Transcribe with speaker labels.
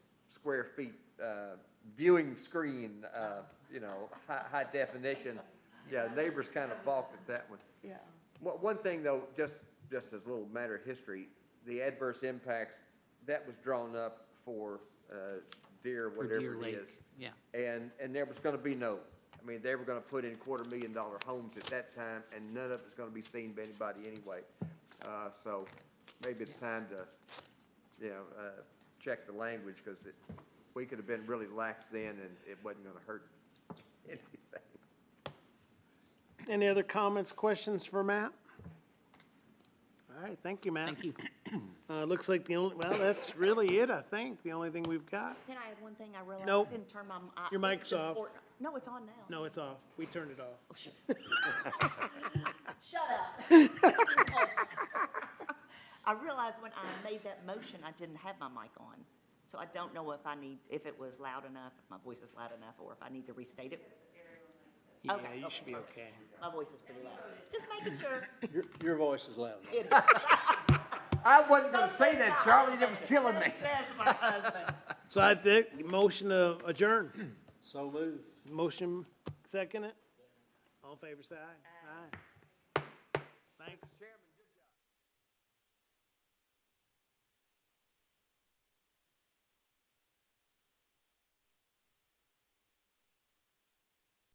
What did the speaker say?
Speaker 1: square feet, uh, viewing screen, uh, you know, high, high definition. Yeah, neighbors kind of balked at that one.
Speaker 2: Yeah,
Speaker 1: One, one thing though, just, just as a little matter of history, the adverse impacts, that was drawn up for, uh, deer,
Speaker 3: for Deer
Speaker 1: whatever it
Speaker 3: Lake.
Speaker 1: is.
Speaker 3: Yeah,
Speaker 1: And, and there was gonna be no, I mean, they were gonna put in quarter million dollar homes at that time, and none of it's gonna be seen by anybody anyway. Uh, so maybe it's time to, you know, uh, check the language, cause it, we could have been really lax then, and it wasn't gonna hurt anything.
Speaker 4: Any other comments, questions for Matt? All right, thank you, Matt.
Speaker 3: thank you.
Speaker 4: Uh, looks like the only, well, that's really it, I think, the only thing we've got.
Speaker 2: can I add one thing I realized?
Speaker 4: Nope.
Speaker 2: I Didn't turn my. m- I-
Speaker 4: Your
Speaker 2: this
Speaker 4: mic's
Speaker 2: is
Speaker 4: off.
Speaker 2: important. No, it's on now.
Speaker 4: No, it's off. We turned it off.
Speaker 2: Shut up. I realized when I made that motion, I didn't have my mic on. So I don't know if I need, if it was loud enough, if my voice is loud enough, or if I need to restate it.
Speaker 4: Yeah,
Speaker 2: Okay,
Speaker 4: you
Speaker 2: okay,
Speaker 4: should be
Speaker 2: perfect.
Speaker 4: okay.
Speaker 2: My voice is pretty loud. Just making sure.
Speaker 5: Your, your voice is loud.
Speaker 2: It is.
Speaker 1: I wasn't gonna say that, Charlie, that was killing me.
Speaker 2: Says my husband.
Speaker 4: So I think, motion to adjourn.
Speaker 5: So moved.
Speaker 4: Motion, second it? All in favor, say aye. Aye. Thanks.